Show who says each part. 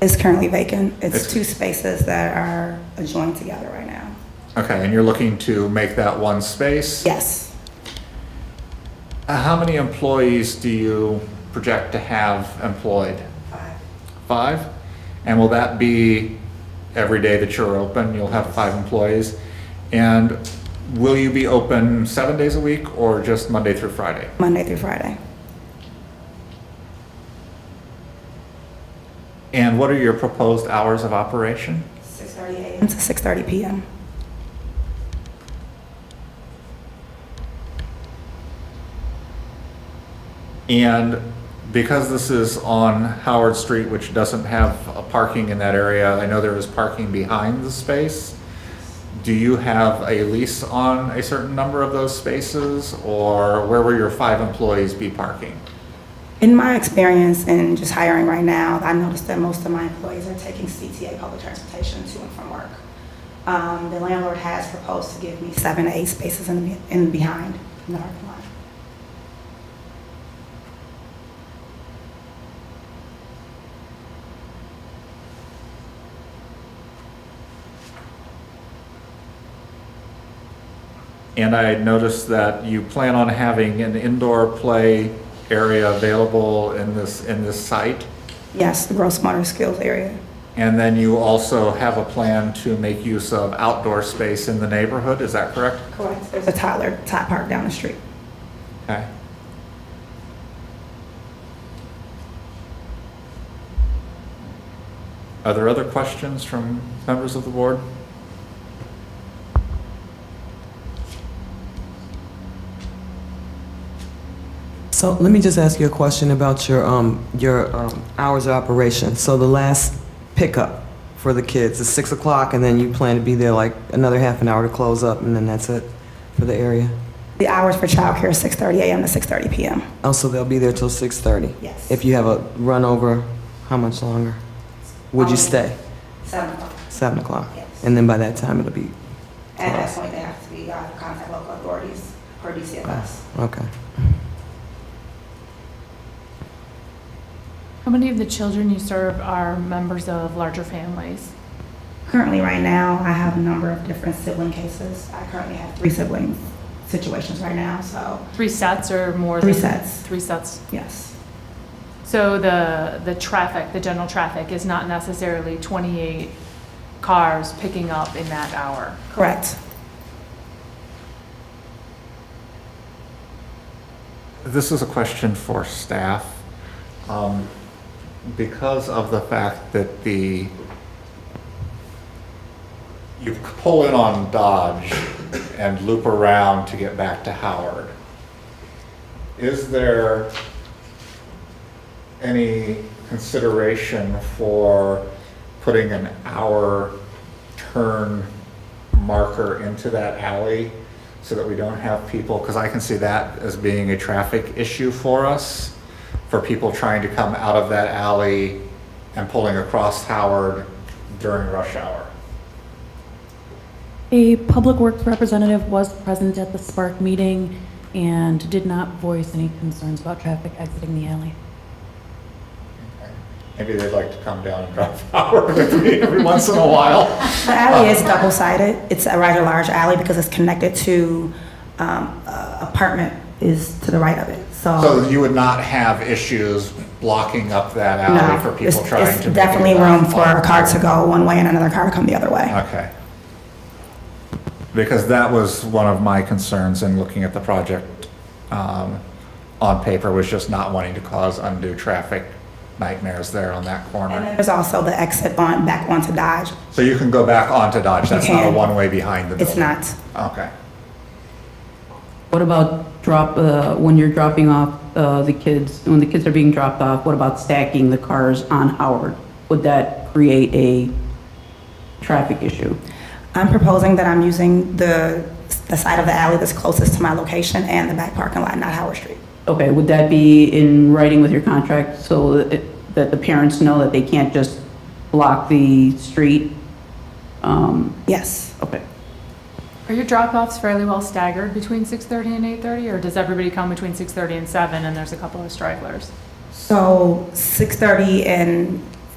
Speaker 1: It's currently vacant. It's
Speaker 2: It's-
Speaker 1: two spaces that are joined together right now.
Speaker 2: Okay, and you're looking to make that one space?
Speaker 1: Yes.
Speaker 2: Uh, How many employees do you project to have employed? Five. Five? And will that be every day that you're open, you'll have five employees? And will you be open seven days a week or just Monday through Friday?
Speaker 1: Monday through Friday.
Speaker 2: And what are your proposed hours of operation?
Speaker 1: Six thirty AM to six thirty PM.
Speaker 2: And because this is on Howard Street, which doesn't have a parking in that area, I know there is parking behind the space. Do you have a lease on a certain number of those spaces, or where will your five employees be parking?
Speaker 1: In my experience in just hiring right now, I noticed that most of my employees are taking CTA public transportation to and from work. Um, the landlord has proposed to give me seven to eight spaces in, the- in behind, in the parking lot.
Speaker 2: And I noticed that you plan on having an indoor play area available in this, in this site.
Speaker 1: Yes, the gross motor skills area.
Speaker 2: And then you also have a plan to make use of outdoor space in the neighborhood, is that correct?
Speaker 1: Correct. There's a toddler, tot park down the street.
Speaker 2: Okay. Are there other questions from members of the board?
Speaker 3: So let me just ask you a question about your, um, your um, hours of operation. So the last pickup for the kids is 6 o'clock, and then you plan to be there like another half an hour to close up, and then that's it for the area?
Speaker 1: The hours for childcare is six thirty AM to six thirty PM.
Speaker 3: Oh, so they'll be there till 6:30?
Speaker 1: Yes.
Speaker 3: If you have a run over, how much longer? Would
Speaker 1: Um,
Speaker 3: you stay?
Speaker 1: Seven o'clock.
Speaker 3: 7 o'clock?
Speaker 1: Yes.
Speaker 3: And then by that time, it'll be,
Speaker 1: At that point, they have to be, uh, contact local authorities or DCFS.
Speaker 3: okay.
Speaker 4: How many of the children you serve are members of larger families?
Speaker 1: Currently, right now, I have a number of different sibling cases. I currently have three siblings situations right now, so
Speaker 4: Three sets or more?
Speaker 1: three
Speaker 4: than-
Speaker 1: sets,
Speaker 4: Three sets.
Speaker 1: yes.
Speaker 4: So the, the traffic, the general traffic is not necessarily 28 cars picking up in that hour?
Speaker 1: Correct.
Speaker 2: This is a question for staff. Um, Because of the fact that the, you pull in on Dodge and loop around to get back to Howard, is there any consideration for putting an hour turn marker into that alley so that we don't have people, because I can see that as being a traffic issue for us, for people trying to come out of that alley and pulling across Howard during rush hour.
Speaker 5: A public works representative was present at the Spark meeting and did not voice any concerns about traffic exiting the alley.
Speaker 2: Maybe they'd like to come down and drive Howard with me every once in a while.
Speaker 1: The alley is double-sided. It's a rather large alley because it's connected to, um, a apartment is to the right of it,
Speaker 2: So you would not have issues blocking up that alley
Speaker 1: No,
Speaker 2: for
Speaker 1: it's-
Speaker 2: people trying to.
Speaker 1: It's
Speaker 2: make it
Speaker 1: definitely
Speaker 2: about
Speaker 1: room for a car
Speaker 2: five.
Speaker 1: to go one way and another car to come the other way.
Speaker 2: Okay. Because that was one of my concerns in looking at the project um, on paper, was just not wanting to cause undue traffic nightmares there on that
Speaker 1: And
Speaker 2: corner.
Speaker 1: then there's also the exit on, back onto Dodge.
Speaker 2: So you can go back onto Dodge, that's not a
Speaker 1: can.
Speaker 2: one-way behind the
Speaker 1: It's
Speaker 2: building?
Speaker 1: not.
Speaker 2: Okay.
Speaker 6: What about drop, uh, when you're dropping off uh, the kids, when the kids are being dropped off, what about stacking the cars on Howard? Would that create a traffic issue?
Speaker 1: I'm proposing that I'm using the, the side of the alley that's closest to my location and the back parking lot, not Howard Street.
Speaker 6: Okay, would that be in writing with your contract so that it- that the parents know that they can't just block the street? Um,
Speaker 1: Yes.
Speaker 6: Okay.
Speaker 4: Are your drop-offs fairly well staggered between 6:30 and 8:30? Or does everybody come between 6:30 and 7 and there's a couple of stragglers?
Speaker 1: So 6:30 and